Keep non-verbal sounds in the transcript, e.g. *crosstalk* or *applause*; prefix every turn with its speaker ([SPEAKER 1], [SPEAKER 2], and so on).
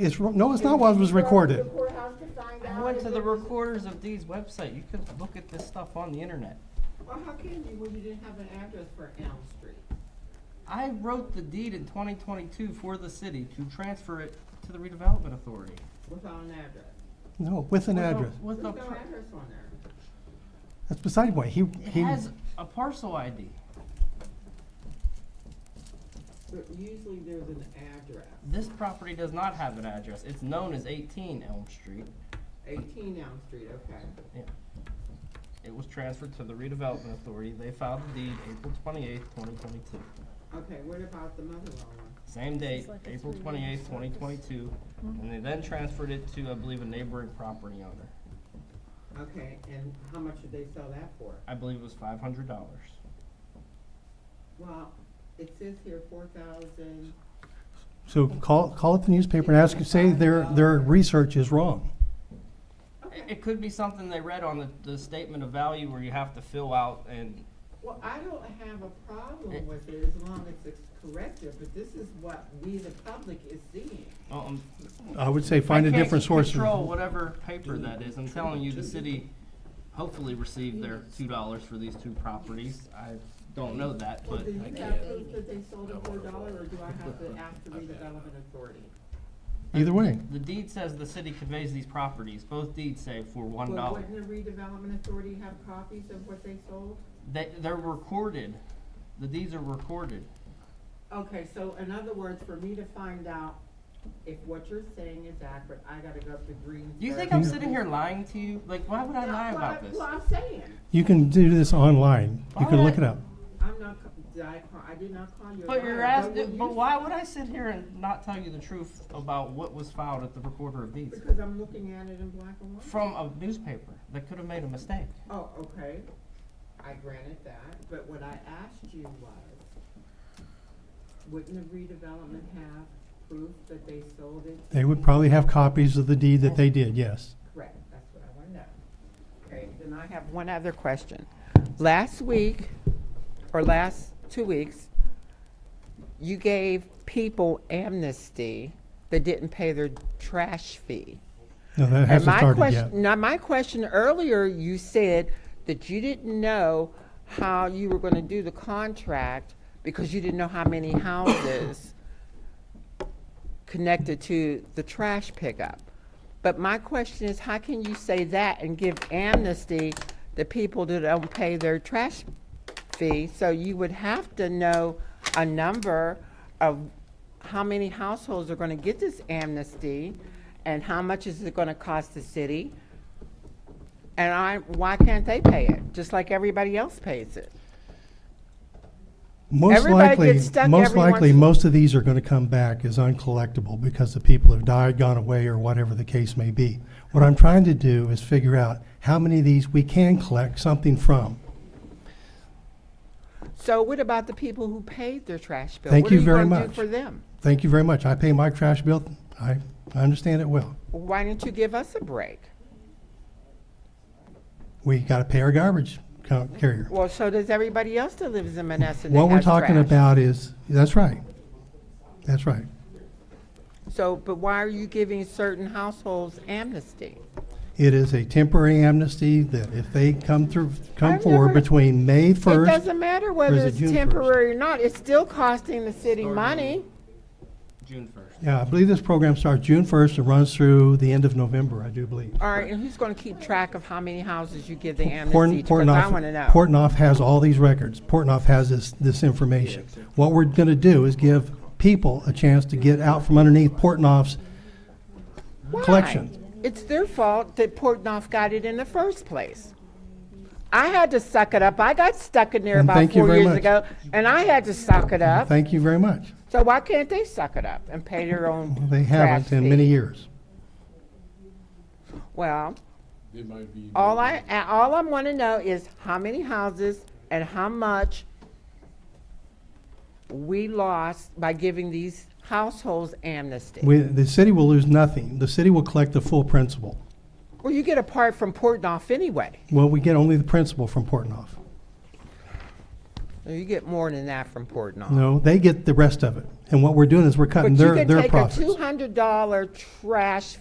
[SPEAKER 1] It's, ro- no, it's not what was recorded.
[SPEAKER 2] Courthouse to find
[SPEAKER 3] I
[SPEAKER 2] out
[SPEAKER 3] went
[SPEAKER 2] if
[SPEAKER 3] to the
[SPEAKER 2] it was-
[SPEAKER 3] recorders of deeds website. You could look at this stuff on the internet.
[SPEAKER 2] Well, how can you when you didn't have an address for Elm Street?
[SPEAKER 3] I wrote the deed in twenty twenty-two for the city to transfer it to the redevelopment authority.
[SPEAKER 2] Without an address.
[SPEAKER 1] No, with an
[SPEAKER 3] With a-
[SPEAKER 1] address.
[SPEAKER 3] With a,
[SPEAKER 2] There's no
[SPEAKER 3] pr-
[SPEAKER 2] address on there.
[SPEAKER 1] That's beside why he,
[SPEAKER 3] it
[SPEAKER 1] he,
[SPEAKER 3] has a parcel ID.
[SPEAKER 2] But usually there's an address.
[SPEAKER 3] This property does not have an address. It's known as eighteen Elm Street.
[SPEAKER 2] Eighteen Elm Street, okay.
[SPEAKER 3] It was transferred to the redevelopment authority. They filed the deed April twenty-eighth, twenty twenty-two.
[SPEAKER 2] Okay, what about the mother-in-law one?
[SPEAKER 3] Same date,
[SPEAKER 4] like a
[SPEAKER 3] April
[SPEAKER 4] three-way
[SPEAKER 3] twenty-eighth, twenty twenty-two, and they then transferred it to, I believe, a neighboring property owner.
[SPEAKER 2] Okay, and how much did they sell that for?
[SPEAKER 3] I believe it was five hundred dollars.
[SPEAKER 2] Well, it says here four thousand,
[SPEAKER 1] so call, call up the newspaper and ask, say their, their research is wrong.
[SPEAKER 3] It, it could be something they read on the, the statement of value where you have to fill out and,
[SPEAKER 2] well, I don't have a
[SPEAKER 3] Eh.
[SPEAKER 2] problem with it as long as it's corrected, but this is what we, the public, is seeing.
[SPEAKER 3] um.
[SPEAKER 1] I would say find a different source.
[SPEAKER 3] I can't control whatever paper that is. I'm telling you, the city hopefully received their two dollars for these two properties. I don't know that,
[SPEAKER 2] Well,
[SPEAKER 3] but
[SPEAKER 2] do you
[SPEAKER 3] I
[SPEAKER 2] have
[SPEAKER 3] can't.
[SPEAKER 2] proof that they sold it for a dollar, or do I have
[SPEAKER 3] *laughs*
[SPEAKER 2] to ask the redevelopment authority?
[SPEAKER 1] Either way.
[SPEAKER 3] The deed says the city conveys these properties. Both deeds say for one
[SPEAKER 2] Well,
[SPEAKER 3] dollar.
[SPEAKER 2] wouldn't the redevelopment authority have copies of what they sold?
[SPEAKER 3] They, they're recorded. The deeds are recorded.
[SPEAKER 2] Okay, so in other words, for me to find out if what you're saying is accurate, I gotta go up to Greensburg.
[SPEAKER 3] Do you think I'm sitting here lying to you? Like, why would I lie
[SPEAKER 2] That's what I-
[SPEAKER 3] about this?
[SPEAKER 2] Well, I'm saying,
[SPEAKER 1] You can do this online. You can look it up.
[SPEAKER 2] I'm not, co- did I, call- I did not call you a
[SPEAKER 3] But you're
[SPEAKER 2] liar,
[SPEAKER 3] asking,
[SPEAKER 2] will
[SPEAKER 3] but
[SPEAKER 2] you-
[SPEAKER 3] why would I sit here and not tell you the truth about what was filed at the recorder of deeds?
[SPEAKER 2] Because I'm looking at it in black and white.
[SPEAKER 3] From a newspaper that could have made a mistake.
[SPEAKER 2] Oh, okay, I granted that, but what I asked you was, wouldn't the redevelopment have proof that they sold it
[SPEAKER 1] They would probably have copies of the deed that they did, yes.
[SPEAKER 2] Correct, that's what I want to know. Okay, then I have one other question. Last week, or last two weeks, you gave people amnesty that didn't pay their trash fee.
[SPEAKER 1] No, that
[SPEAKER 2] And
[SPEAKER 1] hasn't
[SPEAKER 2] my
[SPEAKER 1] started yet.
[SPEAKER 2] question, now, my question earlier, you said that you didn't know how you were going to do the contract because you didn't know how many houses connected to the trash pickup. But my question is, how can you say that and give amnesty to people that don't pay their trash fee? So you would have to know a number of how many households are going to get this amnesty and how much is it going to cost the city? And I, why can't they pay it, just like everybody else pays it?
[SPEAKER 1] Most
[SPEAKER 2] Everybody
[SPEAKER 1] likely,
[SPEAKER 2] gets stuck
[SPEAKER 1] most
[SPEAKER 2] every
[SPEAKER 1] likely,
[SPEAKER 2] once-
[SPEAKER 1] most of these are gonna come back as uncollectible because the people have died, gone away, or whatever the case may be. What I'm trying to do is figure out how many of these we can collect something from.
[SPEAKER 2] So what about the people who paid their trash bill?
[SPEAKER 1] Thank you very
[SPEAKER 2] What are you going
[SPEAKER 1] much.
[SPEAKER 2] to do for them?
[SPEAKER 1] Thank you very much. I pay my trash bill. I, I understand it well.
[SPEAKER 2] Why don't you give us a break?
[SPEAKER 1] We gotta pay our garbage co- carrier.
[SPEAKER 2] Well, so does everybody else that lives in Menneson that
[SPEAKER 1] What we're
[SPEAKER 2] has
[SPEAKER 1] talking
[SPEAKER 2] trash.
[SPEAKER 1] about is, that's right. That's right.
[SPEAKER 2] So, but why are you giving certain households amnesty?
[SPEAKER 1] It is a temporary amnesty that if they come through, come
[SPEAKER 2] I've
[SPEAKER 1] forward
[SPEAKER 2] never-
[SPEAKER 1] between May
[SPEAKER 2] It
[SPEAKER 1] first.
[SPEAKER 2] doesn't matter whether
[SPEAKER 1] it
[SPEAKER 2] it's
[SPEAKER 1] June first?
[SPEAKER 2] temporary or not, it's still costing the city
[SPEAKER 3] Starting-
[SPEAKER 2] money.
[SPEAKER 3] June first.
[SPEAKER 1] Yeah, I believe this program starts June first and runs through the end of November, I do believe.
[SPEAKER 2] All right, and who's going to keep track of how many houses you give the amnesty
[SPEAKER 1] Portn-
[SPEAKER 2] to? Because I
[SPEAKER 1] Portnoy-
[SPEAKER 2] want to know.
[SPEAKER 1] Portnoy has all these records. Portnoy has this, this information. What we're gonna do is give people a chance to get out from underneath Portnoy's
[SPEAKER 2] Why?
[SPEAKER 1] collection.
[SPEAKER 2] It's their fault that Portnoy got it in the first place. I had to suck it up. I got stuck in there
[SPEAKER 1] And
[SPEAKER 2] about
[SPEAKER 1] thank you
[SPEAKER 2] four
[SPEAKER 1] very
[SPEAKER 2] years
[SPEAKER 1] much.
[SPEAKER 2] ago, and I had to suck it up.
[SPEAKER 1] Thank you very much.
[SPEAKER 2] So why can't they suck it up and pay their own
[SPEAKER 1] They
[SPEAKER 2] trash
[SPEAKER 1] haven't in
[SPEAKER 2] fee?
[SPEAKER 1] many years.
[SPEAKER 2] Well,
[SPEAKER 5] It might be.
[SPEAKER 2] all I a- all I want to know is how many houses and how much we lost by giving these households amnesty.
[SPEAKER 1] We, the city will lose nothing. The city will collect the full principal.
[SPEAKER 2] well, you get a part from Portnoy anyway.
[SPEAKER 1] Well, we get only the principal from Portnoy.
[SPEAKER 2] You get more than that from Portnoy.
[SPEAKER 1] No, they get the rest of it. And what we're doing is we're
[SPEAKER 2] But
[SPEAKER 1] cutting
[SPEAKER 2] you
[SPEAKER 1] their,
[SPEAKER 2] can
[SPEAKER 1] their
[SPEAKER 2] take a
[SPEAKER 1] profits.
[SPEAKER 2] two hundred dollar trash